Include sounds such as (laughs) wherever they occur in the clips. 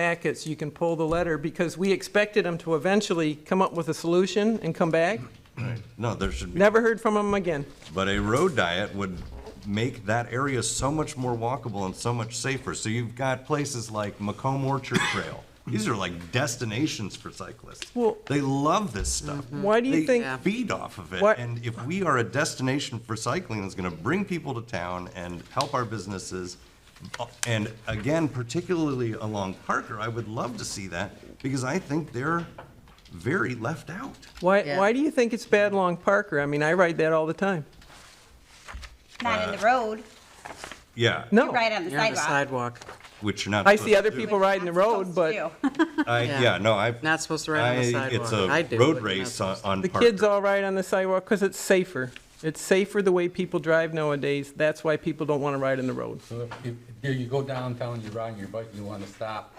packets, you can pull the letter, because we expected them to eventually come up with a solution and come back. No, there should be, Never heard from them again. but a road diet would make that area so much more walkable and so much safer. So you've got places like Macomb Orchard Trail. These are like destinations for cyclists. Well- mm-hmm. They love this stuff. Why do you They think- feed off of it. What- And if we are a destination for cycling that's gonna bring people to town and help our businesses, uh, and again, particularly along Parker, I would love to see that, because I think they're very left out. Why, Yeah. why do you think it's bad along Parker? I mean, I ride that all the time. Not in the road, Yeah, No. you ride on Uh, oh, the You're on the sidewalk. sidewalk. which you're not. I see supposed other to do. people riding the road, but I, Yeah. yeah, no, I've. Not supposed to ride on the I- sidewalk. I It's do, a but road you're not race on supposed on the Parker. kids all ride on the sidewalk because it's safer. It's safer the way people drive nowadays. That's why people don't want to ride on the road. So if, there you go downtown, you're riding your bike, you wanna stop.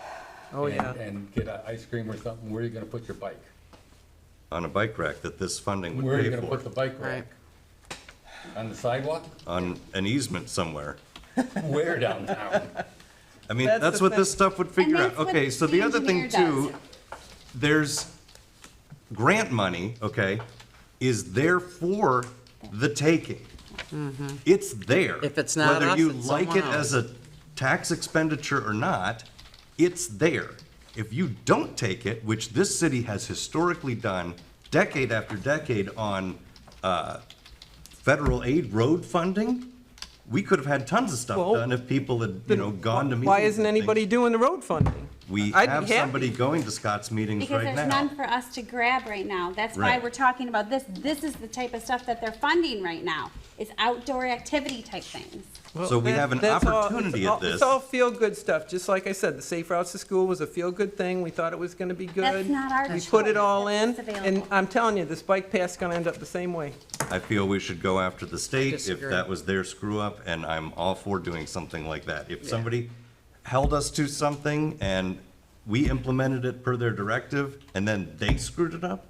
Oh, and- yeah. And get an ice cream or something, where are you gonna put your bike? On a bike rack that this funding Where are would you pay gonna for, put the bike rack? On the sidewalk? on an easement somewhere. Where (laughs) downtown? I mean, That's that's the what this thing. stuff would figure And out. that's what Okay, so the the other thing engineer does. too, there's grant money, okay, is there for the taking. It's there. Mm-hmm. If it's not us, Whether you it's like it someone as a tax expenditure or not, it's there. If you don't take it, which this city has historically done decade after decade on uh, federal aid road funding, we could have had tons of stuff Well, done if people had, you know, gone to meetings. Why isn't and things. anybody doing the road funding? We I'd be have happy. somebody going to Scott's meetings Because right there's none now. for us to grab right now. That's why Right. we're talking about this. This is the type of stuff that they're funding right now. It's outdoor activity type things. So we That- have an that's all- opportunity it's at all- this. It's all feel-good stuff, just like I said, the Safe Routes to School was a feel-good thing, we thought it was gonna be good. not our We put it choice. all in, That's and available. I'm telling you, this bike path's gonna end up the same way. I feel we should go after the state if Disagree. that was their screw up, and I'm all for doing something like that. If somebody held us to something and we implemented it per their directive, and then they screwed it up,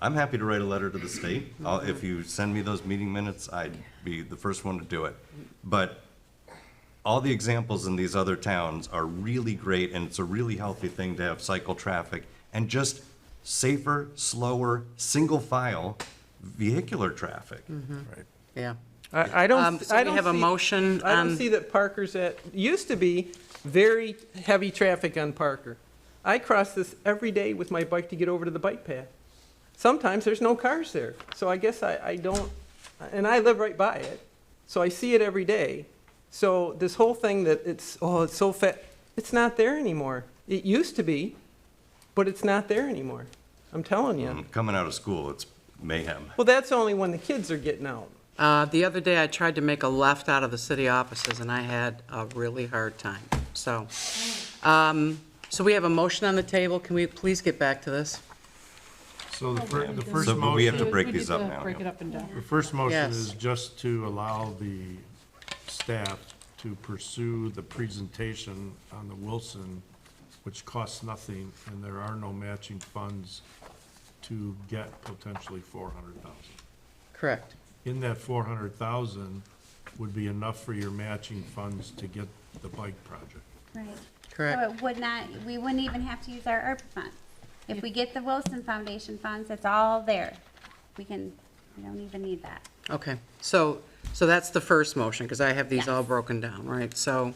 I'm happy to write a letter to the state. I'll- If you send me those meeting minutes, I'd be the first one to do it. But all the examples in these other towns are really great, and it's a really healthy thing to have cycle traffic and just safer, slower, single file vehicular traffic. Mm-hmm. Yeah. I, I Um, don't, so I we don't have a see- motion um, I don't on- see that Parker's at, used to be very heavy traffic on Parker. I cross this every day with my bike to get over to the bike path. Sometimes there's no cars there, so I guess I, I don't, and I live right by it, so I see it every day. So this whole thing that it's, oh, it's so fat, it's not there anymore. It used to be, but it's not there anymore. I'm telling you. Um, Coming out of school, it's mayhem. Well, that's only when the kids are getting out. Uh, The other day, I tried to make a left out of the city offices, and I had a really hard time. So, um, so we have a motion on the table. Can we please get back to this? So the fir- the first So, motion. but we have to break We these need up to now, Break yeah. it up and down. The first motion Yes. is just to allow the staff to pursue the presentation on the Wilson, which costs nothing, and there are no matching funds to get potentially four hundred thousand. Correct. In that four hundred thousand would be enough for your matching funds to get the bike project. Right. So Correct. it would not, we wouldn't even have to use our ARPA funds. If we get the Wilson Foundation funds, it's all there. We can, we don't even need that. Okay. So, so that's the first motion, because I have these all broken down, right? So,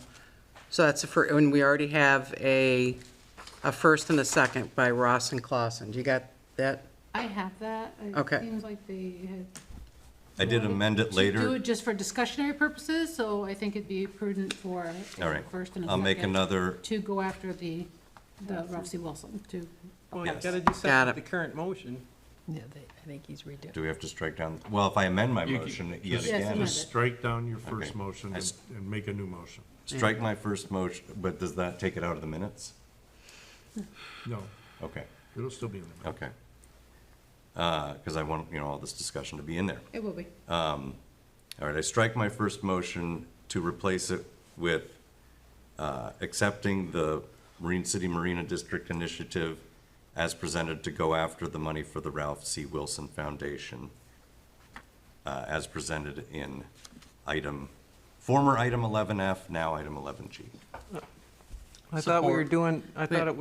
so that's the first, and we already have a, a first and a second by Ross and Clausen. You got that? I have that. It Okay. Seems like they had. I did amend it Do later. it just for discussionary purposes, so I think it'd be prudent for. uh, All right, First and a I'll second. make another, To go after the, the Ralph C. Wilson, to. Well, you Yes. gotta do Got something with it. the current motion. Yeah, they, I think he's redoing. do we have to strike down, well, if I amend my motion yet Yes, again, amend it. Strike down your first Okay. motion I and s- and make a new motion. strike my first motion, but does that take it out of the minutes? No, Okay, it'll still be in there. okay. Because I want, you know, all this discussion to be in there. It will be. All right, I strike my first motion to replace it with uh, accepting the Marine City Marina District Initiative as presented to go after the money for the Ralph C. Wilson Foundation uh, as presented in item, former item 11F, now item 11G. I thought we were Support. doing, I thought it